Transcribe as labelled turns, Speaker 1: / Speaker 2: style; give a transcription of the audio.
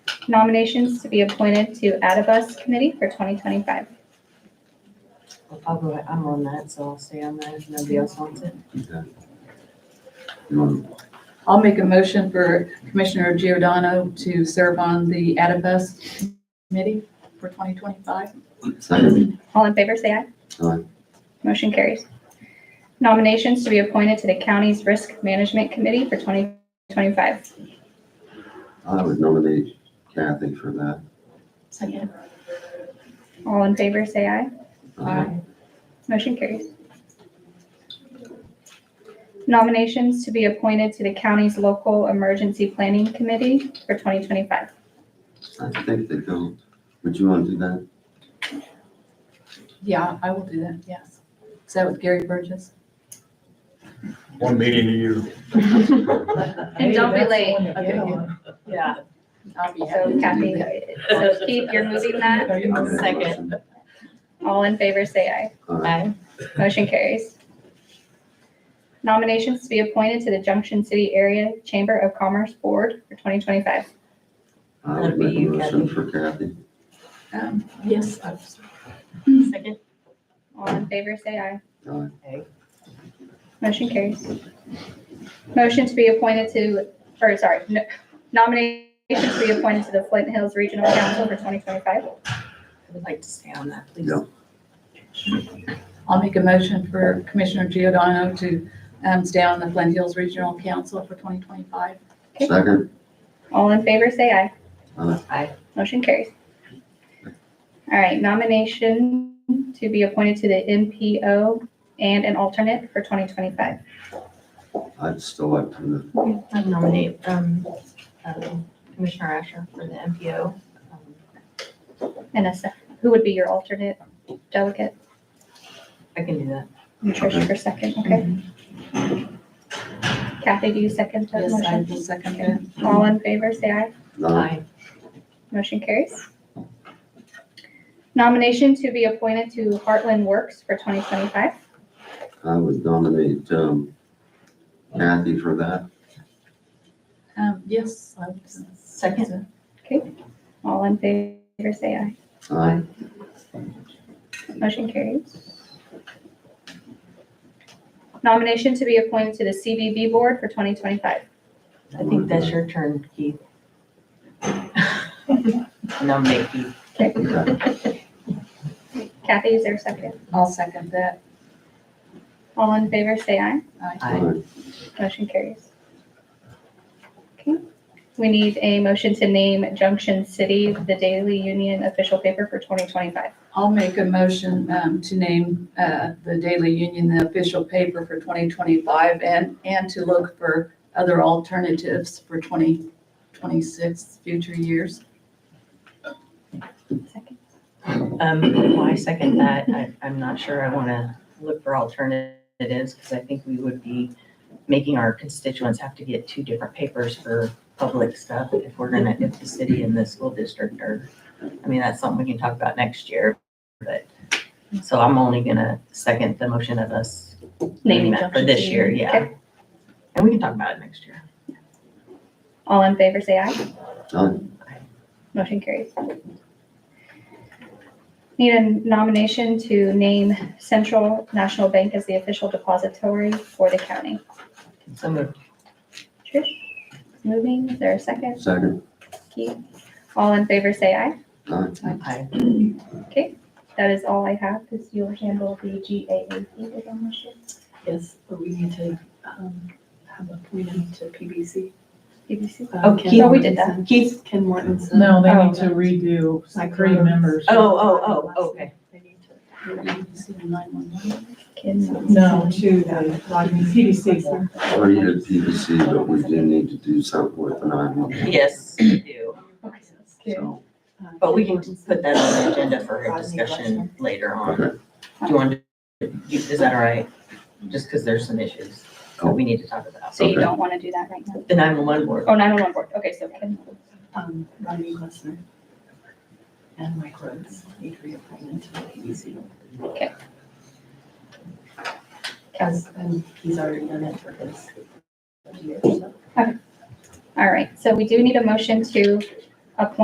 Speaker 1: nominations to be appointed to Adibus Committee for 2025.
Speaker 2: I'll go, I'm on that, so I'll stay on that if nobody else wants it.
Speaker 3: Okay. Um,
Speaker 4: I'll make a motion for Commissioner Giordano to serve on the Adipose Committee for 2025.
Speaker 3: Second,
Speaker 1: All in favor, say aye.
Speaker 3: Aye.
Speaker 1: Motion carries. Nominations to be appointed to the county's Risk Management Committee for 2025.
Speaker 3: I would nominate Kathy for that.
Speaker 4: Second.
Speaker 1: All in favor, say aye.
Speaker 3: Uh,
Speaker 1: Motion carries. Nominations to be appointed to the county's Local Emergency Planning Committee for 2025.
Speaker 3: Uh, I think they go, would you want to do that?
Speaker 4: Yeah, I will do that, yes. Is that with Gary Burgess?
Speaker 5: One meeting a year.
Speaker 1: And don't be late.
Speaker 4: Okay, good.
Speaker 2: Yeah.
Speaker 4: I'll be happy.
Speaker 1: So
Speaker 4: to
Speaker 1: Kathy,
Speaker 4: do that.
Speaker 1: Keith, you're moving that.
Speaker 3: I'll make a
Speaker 2: Second.
Speaker 3: motion.
Speaker 1: All in favor, say aye.
Speaker 3: Aye.
Speaker 2: Aye.
Speaker 1: Motion carries. Nominations to be appointed to the Junction City Area Chamber of Commerce Board for 2025.
Speaker 3: I
Speaker 2: That'd
Speaker 3: would
Speaker 2: be
Speaker 3: make a
Speaker 2: you,
Speaker 3: motion
Speaker 2: Kathy.
Speaker 3: for Kathy.
Speaker 4: Um, Yes, I was-
Speaker 2: Second.
Speaker 1: All in favor, say aye.
Speaker 3: Aye.
Speaker 2: Aye.
Speaker 1: Motion carries. Motion to be appointed to, or sorry, no- nominations to be appointed to the Flint Hills Regional Council for 2025.
Speaker 2: I would like to stay on that, please.
Speaker 3: Yeah.
Speaker 4: I'll make a motion for Commissioner Giordano to um, stay on the Flint Hills Regional Council for 2025.
Speaker 1: Okay.
Speaker 3: Second,
Speaker 1: All in favor, say aye.
Speaker 3: Aye.
Speaker 2: Aye.
Speaker 1: Motion carries. All right, nomination to be appointed to the NPO and an alternate for 2025.
Speaker 3: I'd still like to,
Speaker 6: I nominate um,
Speaker 2: uh,
Speaker 6: um, Commissioner Asher for the MPO. Um,
Speaker 1: And a sec, who would be your alternate delegate?
Speaker 2: I can do that.
Speaker 1: And Trish for second, okay? Kathy, do you second that
Speaker 4: Yes, I
Speaker 1: motion?
Speaker 4: will second that.
Speaker 1: All in favor, say aye.
Speaker 3: aye,
Speaker 2: Aye.
Speaker 1: Motion carries. Nomination to be appointed to Heartland Works for 2025.
Speaker 3: I would nominate, um, Kathy for that.
Speaker 4: Um, Yes, I would second.
Speaker 1: All in favor, say aye.
Speaker 3: Aye.
Speaker 1: Motion carries. Nomination to be appointed to the CBB Board for 2025.
Speaker 2: I think that's your turn, Keith. Nominate Keith.
Speaker 3: Okay.
Speaker 1: Kathy, is there a second?
Speaker 4: I'll second that.
Speaker 1: All in favor, say aye.
Speaker 2: Aye.
Speaker 3: Aye.
Speaker 1: Motion carries. Okay, we need a motion to name Junction City the Daily Union official paper for 2025.
Speaker 4: I'll make a motion um, to name uh, the Daily Union the official paper for 2025 and, and to look for other alternatives for 2026, future years.
Speaker 1: Second.
Speaker 2: Um, well, I second that. I, I'm not sure I want to look for alternatives because I think we would be making our constituents have to get two different papers for public stuff if we're gonna, if the city and the school district are, I mean, that's something we can talk about next year, but, so I'm only gonna second the motion of us
Speaker 1: Naming
Speaker 2: doing that for
Speaker 1: Junction
Speaker 2: this
Speaker 1: City.
Speaker 2: year, yeah.
Speaker 1: Okay.
Speaker 2: And we can talk about it next year.
Speaker 1: All in favor, say aye.
Speaker 3: Aye.
Speaker 1: Motion carries. Need a nomination to name Central National Bank as the official depository for the county.
Speaker 2: So moved.
Speaker 1: Trish, moving, is there a second?
Speaker 3: Second,
Speaker 1: Keith? All in favor, say aye.
Speaker 3: aye,
Speaker 2: Aye.
Speaker 1: Okay, that is all I have, because you'll handle the GAAP with them this year.
Speaker 7: Yes, but we need to um, have a meeting to PBC.
Speaker 1: BBC.
Speaker 7: Um,
Speaker 2: Okay.
Speaker 7: Ken
Speaker 1: Oh, we did that.
Speaker 7: Mortensen- Keith, Ken Mortensen.
Speaker 8: No, they
Speaker 1: Oh.
Speaker 8: need to redo
Speaker 7: my
Speaker 8: three
Speaker 7: girl.
Speaker 8: members.
Speaker 2: Oh, oh, oh, okay.
Speaker 7: They need to-
Speaker 1: Ken.
Speaker 8: No, uh, to the Rodney CDC.
Speaker 3: or you did PVC, but we do need to do something with an I.
Speaker 2: Yes, we do.
Speaker 3: So,
Speaker 7: Uh,
Speaker 2: But we
Speaker 7: Ken
Speaker 2: can
Speaker 7: Mortensen.
Speaker 2: put that on the agenda for a discussion later on.
Speaker 3: okay,
Speaker 2: Do you want, to? you- is that all right? Just because there's some issues that we need to talk about.
Speaker 1: So you
Speaker 3: Oh. Okay.
Speaker 1: don't want to do that right now?
Speaker 2: The 911 board,
Speaker 1: Oh, 911 board, okay, so Ken.
Speaker 7: Um, Ronnie Lesnar. And Mike Rhodes need reappointment to the PBC.
Speaker 1: Okay.
Speaker 7: As, and he's already done it for his year, so.
Speaker 1: All right, so we do need a motion to appoint